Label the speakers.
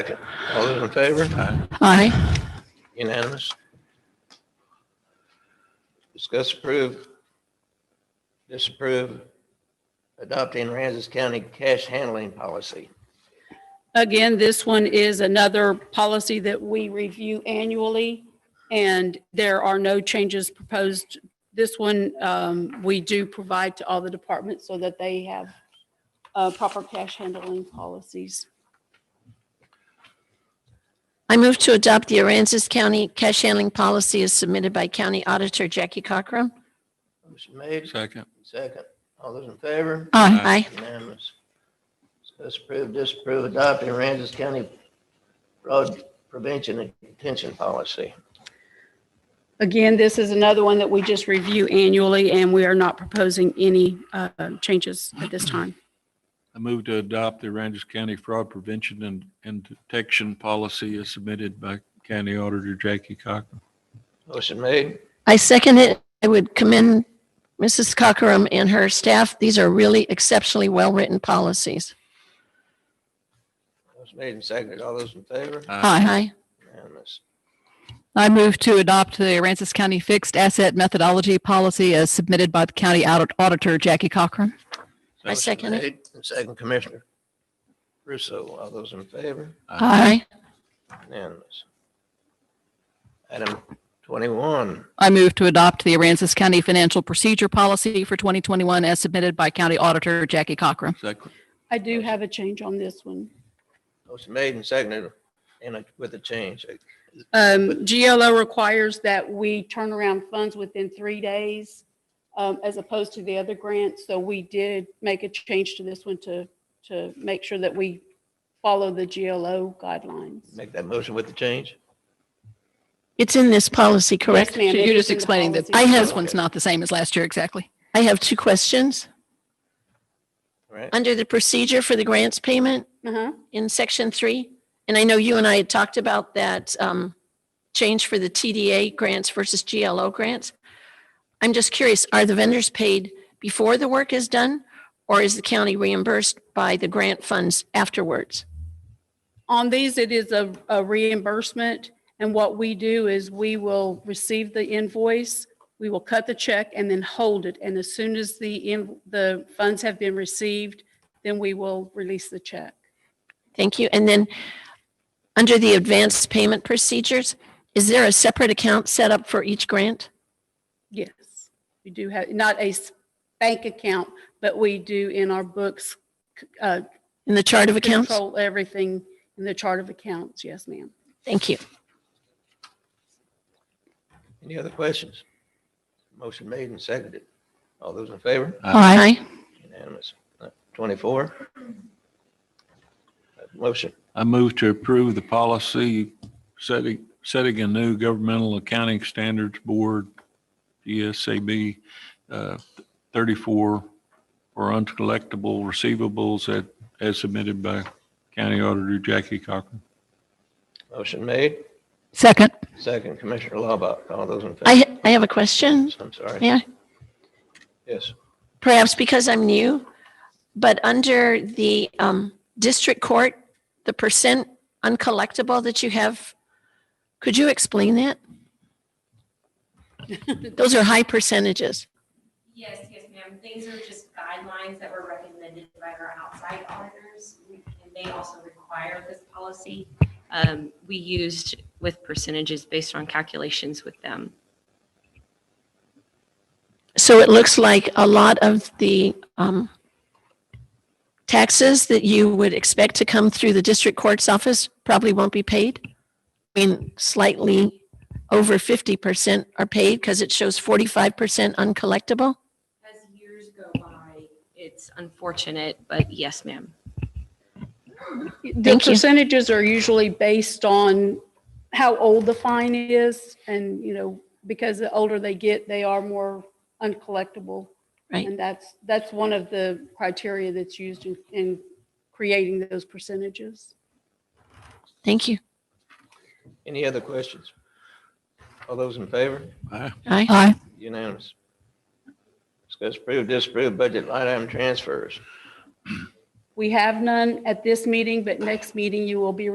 Speaker 1: All those in favor? Aye.
Speaker 2: Aye.
Speaker 1: Unanimous. Discuss approve, disapprove adopting Aransas County cash handling policy.
Speaker 2: Again, this one is another policy that we review annually, and there are no changes proposed. This one, um, we do provide to all the departments so that they have uh, proper cash handling policies.
Speaker 3: I move to adopt the Aransas County cash handling policy as submitted by County Auditor Jackie Cochran.
Speaker 1: Motion made,
Speaker 4: Second.
Speaker 1: second. All those in favor?
Speaker 2: Aye.
Speaker 3: Aye.
Speaker 1: Unanimous. Discuss approve, disapprove adopting Aransas County fraud prevention and detention policy.
Speaker 2: Again, this is another one that we just review annually, and we are not proposing any uh, changes at this time.
Speaker 4: I move to adopt the Aransas County Fraud Prevention and, and Detection Policy as submitted by County Auditor Jackie Cochran.
Speaker 1: Motion made,
Speaker 3: I second it. I would commend Mrs. Cochran and her staff. These are really exceptionally well-written policies.
Speaker 1: motion made and seconded. All those in favor?
Speaker 3: Aye.
Speaker 1: Unanimous.
Speaker 5: I move to adopt the Aransas County Fixed Asset Methodology Policy as submitted by the County Audit- Auditor Jackie Cochran.
Speaker 3: I second it.
Speaker 1: And second Commissioner Russo, all those in favor?
Speaker 3: Aye.
Speaker 1: Unanimous. Item twenty-one,
Speaker 5: I move to adopt the Aransas County Financial Procedure Policy for 2021 as submitted by County Auditor Jackie Cochran.
Speaker 4: Second.
Speaker 2: I do have a change on this one.
Speaker 1: motion made and seconded, and it- with a change. Uh,
Speaker 2: Um, GLO requires that we turn around funds within three days, um, as opposed to the other grants. So we did make a change to this one to, to make sure that we follow the GLO guidelines.
Speaker 1: Make that motion with the change?
Speaker 3: It's in this policy, correct?
Speaker 2: Yes, ma'am. It
Speaker 5: You're
Speaker 2: is
Speaker 5: just
Speaker 2: in the
Speaker 5: explaining that
Speaker 2: policy.
Speaker 3: I have-
Speaker 5: this one's not the same as last year exactly.
Speaker 3: I have two questions.
Speaker 1: All Right?
Speaker 3: Under the procedure for the grants payment
Speaker 2: Uh-huh.
Speaker 3: in section three, and I know you and I had talked about that um, change for the TDA grants versus GLO grants. I'm just curious, are the vendors paid before the work is done? Or is the county reimbursed by the grant funds afterwards?
Speaker 2: On these, it is a a reimbursement. And what we do is we will receive the invoice, we will cut the check and then hold it. And as soon as the, in- the funds have been received, then we will release the check.
Speaker 3: Thank you. And then under the advanced payment procedures, is there a separate account set up for each grant?
Speaker 2: Yes, we do have, not a s- bank account, but we do in our books, c- uh,
Speaker 3: In the chart of accounts?
Speaker 2: control everything in the chart of accounts. Yes, ma'am.
Speaker 3: Thank you.
Speaker 1: Any other questions? Motion made and seconded. All those in favor?
Speaker 3: Aye.
Speaker 1: Unanimous. Uh, Twenty-four? Uh, Motion,
Speaker 4: I move to approve the policy setting, setting a new governmental accounting standards board, GSAB, uh, 34 for uncollectible receivables that, as submitted by County Auditor Jackie Cochran.
Speaker 1: motion made,
Speaker 5: Second.
Speaker 1: second Commissioner Laubach, all those in favor?
Speaker 3: I, I have a question.
Speaker 1: I'm sorry,
Speaker 3: May I?
Speaker 1: yes.
Speaker 3: perhaps because I'm new, but under the um, district court, the percent uncollectible that you have, could you explain that? Those are high percentages.
Speaker 6: Yes, yes, ma'am. These are just guidelines that were recommended by our outside auditors, and they also require this policy. Um, We used with percentages based on calculations with them.
Speaker 3: So it looks like a lot of the um, taxes that you would expect to come through the district court's office probably won't be paid. I mean, slightly over 50% are paid because it shows 45% uncollectible.
Speaker 6: As years go by, it's unfortunate, but yes, ma'am.
Speaker 2: The
Speaker 3: Thank you.
Speaker 2: percentages are usually based on how old the fine is. And, you know, because the older they get, they are more uncollectible.
Speaker 3: Right.
Speaker 2: And that's, that's one of the criteria that's used in, in creating those percentages.
Speaker 3: Thank you.
Speaker 1: Any other questions? All those in favor?
Speaker 4: Aye.
Speaker 3: Aye.
Speaker 5: Aye.
Speaker 1: Unanimous. Discuss approve, disapprove budget line item transfers.
Speaker 2: We have none at this meeting, but next meeting you will be